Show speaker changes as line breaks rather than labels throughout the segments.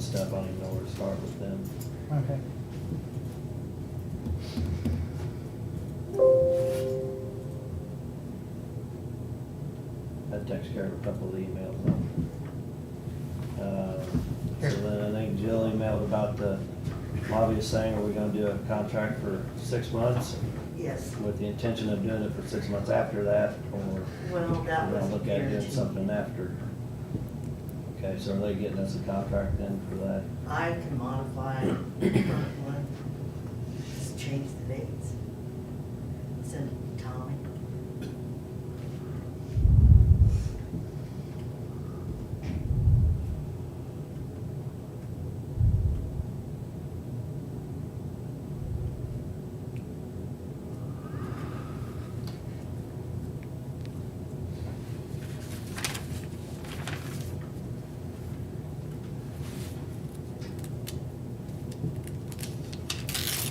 stuff, I don't even know where to start with them.
Okay.
That takes care of a couple of the emails. Uh, So then I think Jill emailed about the lobbyist saying, are we gonna do a contract for six months?
Yes,
With the intention of doing it for six months after that, or
well,
we're
that was.
gonna look at doing
guaranteed.
something after? Okay, so are they getting us a contract then for that?
I can modify the current one, just change the dates. Send it to Tommy.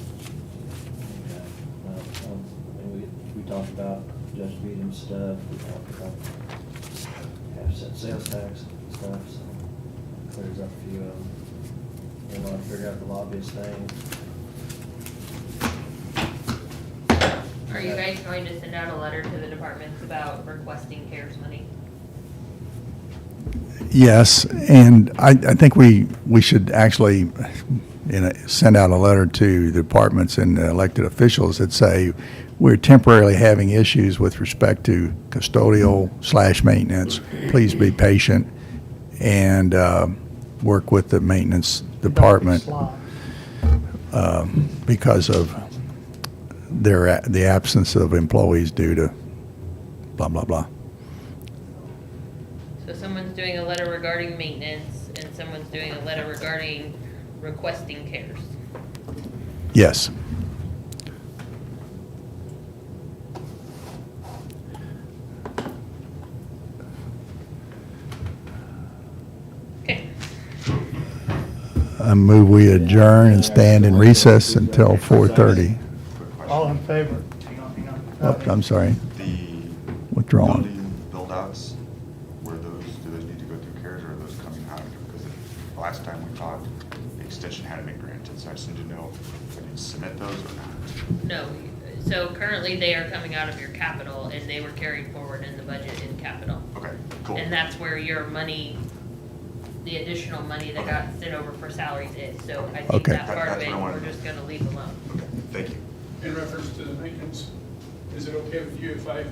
Okay, well, um, And we, we talked about Judge Beadham stuff, we talked about half cent sales tax and stuff, so clears up a few of them. We wanna figure out the lobbyist thing.
Are you guys going to send out a letter to the departments about requesting CARES money?
Yes, and I, I think we, we should actually, you know, send out a letter to the departments and elected officials that say, we're temporarily having issues with respect to custodial slash maintenance. Please be patient and, uh, work with the maintenance department uh,
Slot.
because of their, a- the absence of employees due to blah, blah, blah.
So someone's doing a letter regarding maintenance and someone's doing a letter regarding requesting CARES.
Yes.
Okay,
I move we adjourn and stand in recess until 4:30.
Quick
All in
question.
favor? Hang on, hang on.
Oh, I'm sorry,
The
withdrawn.
building build-outs, were those, do those need to go through CARES or are those coming out? Because the last time we talked, the extension hadn't been granted, so I just need to know if I need to submit those or not.
no, so currently they are coming out of your capital and they were carried forward in the budget in capital.
Okay, cool.
And that's where your money, the additional money that got sent over for salaries is, so I think
Okay.
that
That-
part of
that's
it,
what I wanted.
we're just gonna leave alone.
Okay, thank you.
In reference to the maintenance, is it okay with you if I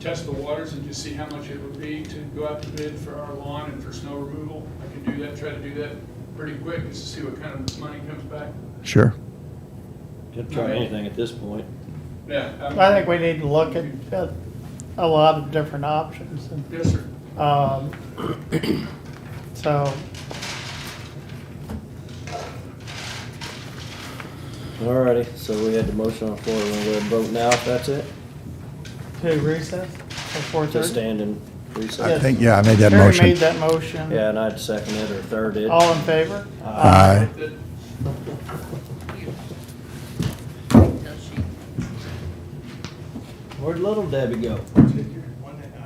test the waters and just see how much it would be to go out to bid for our lawn and for snow removal? I can do that, try to do that pretty quick, just to see what kind of money comes back.
Sure.
Could try anything at this point.
Yeah. I'm-
I think we need to look at, at a lot of different options and,
Yes, sir.
um, so,
Alrighty, so we had the motion on the floor, we're gonna go ahead and vote now if that's it,
to recess at four
to
thirty?
stand and
I
recess.
think, yeah, I made that
Terry made
motion.
that motion.
Yeah, and I'd second it or third it.
All in favor?
Aye.
That-
Until she-
Where'd little Debbie go?